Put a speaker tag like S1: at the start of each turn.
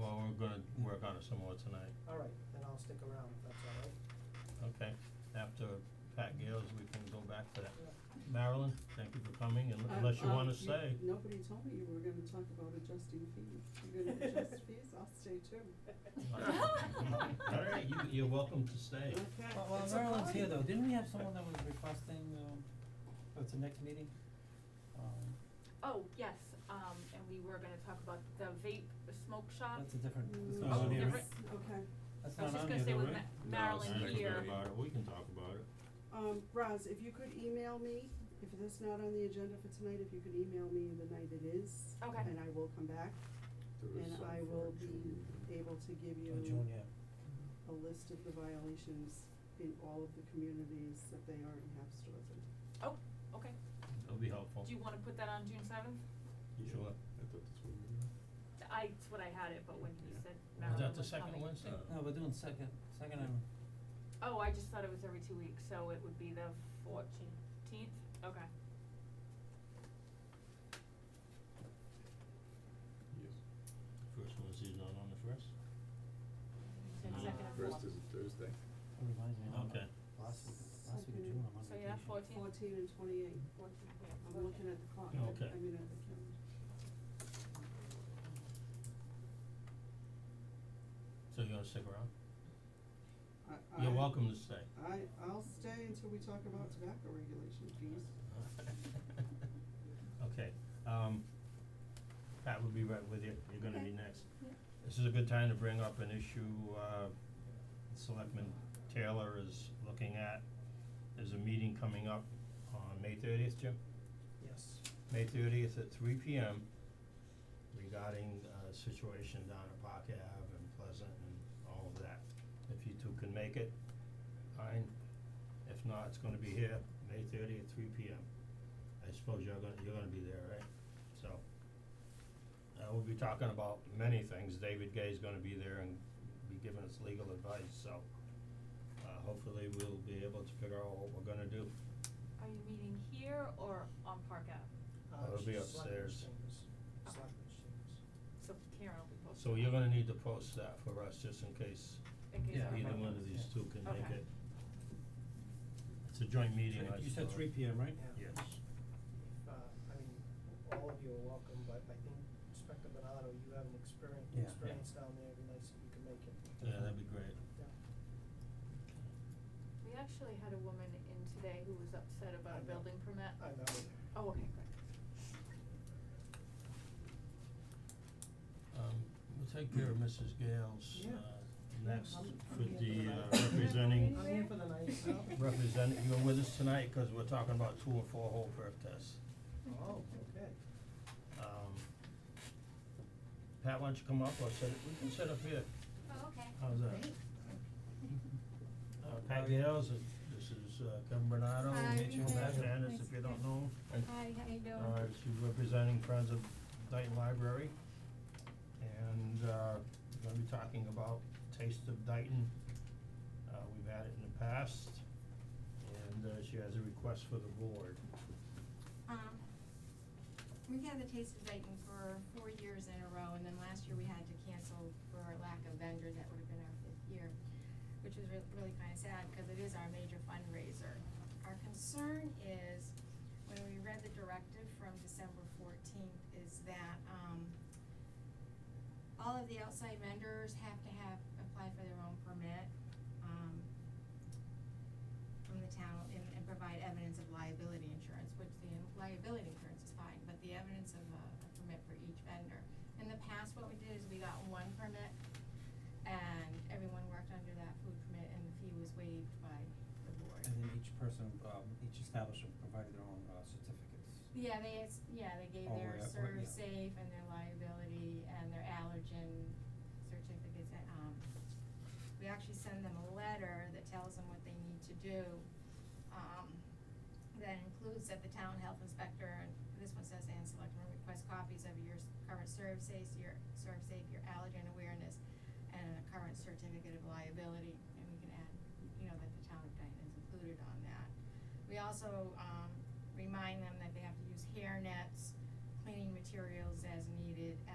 S1: gonna work on it some more tonight,
S2: All right, then I'll stick around, if that's all right.
S1: okay? After Pat Gales, we can go back to that.
S2: Yeah.
S1: Marilyn, thank you for coming, and
S3: I-
S1: unless you
S3: um,
S1: wanna stay,
S3: Nobody told me you were gonna talk about adjusting fees. You're gonna adjust fees, I'll stay too.
S1: alright, you, you're welcome to stay.
S3: Okay.
S4: Well, while
S2: It's a
S4: Marilyn's
S2: party.
S4: here though, didn't we have someone that was requesting, um, oh, it's the next meeting? Um,
S5: Oh, yes, um, and we were gonna talk about the vape smoke shop.
S4: that's a different,
S1: Mm.
S4: that's not
S1: Oh,
S4: on here, right?
S5: Uh, different.
S3: Okay,
S4: That's
S5: I was
S4: not
S5: just
S4: on
S5: gonna
S4: here
S5: say
S4: though,
S5: with
S4: right?
S5: Ma-
S1: No,
S5: Marilyn
S1: it's not
S5: here.
S1: gonna be about it. we can talk about it,
S3: um, Roz, if you could email me, if it's not on the agenda for tonight, if you could email me the night it is.
S5: Okay.
S3: And I will come back,
S6: There is
S3: and
S6: some
S3: I will
S6: for June.
S3: be able to give you
S4: Oh, June, yeah.
S3: a list of the violations in all of the communities that they already have stores in.
S5: Oh, okay.
S1: it'll be helpful.
S5: Do you wanna put that on June seventh?
S6: Yeah,
S1: Sure.
S6: I thought that's what we were.
S5: I, that's what I had it, but when you
S6: Yeah.
S5: said
S1: Is
S5: Marilyn
S1: that the
S5: was
S1: second
S5: coming-
S1: Wednesday?
S6: Uh,
S4: No, we're doing second, second and,
S5: Oh, I just thought it was every two weeks, so it would be the fourteenth, okay.
S6: Yes.
S1: First Wednesday's not on the first?
S5: You said
S1: Uh,
S5: second and
S6: First
S5: fourth.
S6: is a Thursday.
S4: it reminds me, I'm,
S1: Okay.
S4: uh, last week, last week
S3: Second.
S4: of June, I'm on
S5: So
S4: vacation.
S5: yeah, fourteenth.
S3: Fourteen and twenty-eight, I'm looking at the clock, I
S1: Okay.
S3: I mean, at the calendar.
S1: So you're gonna stick around?
S3: I, I.
S1: You're welcome to stay.
S3: I, I'll stay until we talk about tobacco regulation fees.
S1: Okay, um, Pat will be right with you, you're gonna be
S3: Okay.
S1: next. This is a good time to bring up an issue, uh, Selectman Taylor is looking at, there's a meeting coming up on May thirtieth, Jim?
S2: Yes.
S1: May thirtieth at three P M regarding uh situation down at Park Ave and Pleasant and all of that. If you two can make it, fine. If not, it's gonna be here, May thirtieth at three P M. I suppose you're gonna, you're gonna be there, right? So, uh, we'll be talking about many things. David Gay's gonna be there and be giving us legal advice, so uh hopefully we'll be able to figure out what we're gonna do.
S5: Are you meeting here or on Park Ave?
S2: Uh,
S1: Oh, It'll be
S2: she's selectmen's
S1: upstairs.
S2: chambers.
S5: Okay.
S2: Selectmen's chambers.
S5: So Karen will be
S1: So
S5: posting.
S1: you're gonna need to post that for us, just in case
S5: In case I-
S4: Yeah,
S1: either
S4: might
S1: one
S4: not,
S1: of these
S4: yeah.
S1: two can make
S5: Okay.
S1: it. It's a joint meeting, I
S4: You said
S1: saw.
S4: three P M, right?
S2: Yeah.
S1: Yes,
S2: If, uh, I mean, all of you are welcome, but I think Inspector Bernardo, you have an experience,
S4: Yeah. Yeah.
S2: experience down there, it'd be nice if you could make it.
S1: yeah, that'd be great.
S2: Yeah.
S5: We actually had a woman in today who was upset
S2: I
S5: about a
S2: know.
S5: building permit.
S2: I know,
S5: Oh, okay, good.
S1: Um, we'll take care of Mrs. Gales,
S2: Yeah.
S1: uh, next
S2: I'm- I'm
S1: for
S2: here
S1: the
S2: for
S1: uh,
S2: the night.
S1: representing,
S2: I'm here for the night, so.
S1: representing, you're with us tonight, cause we're talking about two and four whole birth tests.
S2: Oh, okay.
S1: Um, Pat, why don't you come up or sit, we can sit up here,
S5: Oh, okay.
S1: how's that? Uh, Pat Gales, and this is uh, Kevin Bernardo,
S7: Hi,
S1: Mitchell
S7: Pat.
S1: Hernandez,
S7: Nice
S1: if
S7: to
S1: you don't
S7: meet
S1: know him.
S7: Hi, how you doing?
S1: Uh, she's representing Friends of Dayton Library. And, uh, we're gonna be talking about Taste of Dayton. Uh, we've had it in the past, and, uh, she has a request for the board.
S7: Um, we've had the Taste of Dayton for four years in a row, and then last year we had to cancel for lack of vendors, that would have been our fifth year, which was re- really kinda sad, cause it is our major fundraiser. Our concern is, when we read the directive from December fourteenth, is that, um, all of the outside vendors have to have, applied for their own permit, um, from the town and, and provide evidence of liability insurance, which the liability insurance is fine, but the evidence of a, a permit for each vendor. In the past, what we did is we got one permit and everyone worked under that food permit and the fee was waived by the board.
S4: And then each person, um, each establishment provided their own, uh, certificates.
S7: Yeah, they, ex- yeah, they gave
S4: Oh,
S7: their
S4: yeah, right,
S7: serve
S4: yeah.
S7: safe and their liability and their allergen certificates and, um, we actually send them a letter that tells them what they need to do. Um, that includes that the town health inspector, and this one says, and selectmen request copies of your s- current serve safe, your serve safe, your allergen awareness and a current certificate of liability, and we can add, you know, that the town of Dayton is included on that. We also, um, remind them that they have to use hair nets, cleaning materials as needed,